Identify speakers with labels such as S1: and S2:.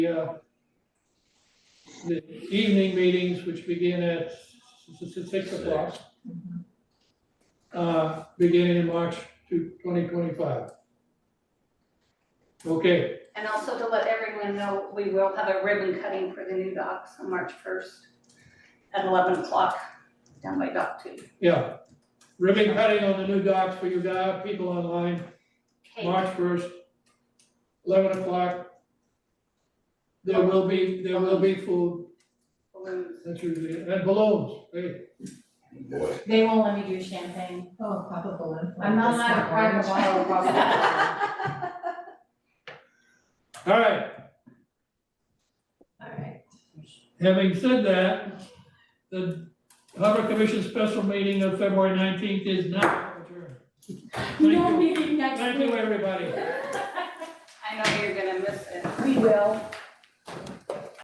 S1: uh, the evening meetings, which begin at s- s- s- six o'clock, uh, beginning in March to twenty twenty-five. Okay,
S2: And also to let everyone know, we will have a ribbon cutting for the new docks on March first at eleven o'clock down by dock two.
S1: yeah. Ribbon cutting on the new docks for you guys, people online,
S2: Kate,
S1: March first, eleven o'clock. There will be, there will be food,
S2: balloons,
S1: that's usually, it, and balloons, hey,
S3: Boy,
S4: They won't let me do champagne.
S5: Oh, pop a balloon.
S4: I'm not allowed to cry in a bottle of wine.
S1: all right,
S5: Alright.
S1: having said that, the Harbor Commission special meeting of February nineteenth is now adjourned. Thank
S4: No
S1: you,
S4: meeting next
S1: thank you,
S4: week.
S1: everybody.
S2: I know you're gonna miss it.
S4: We will.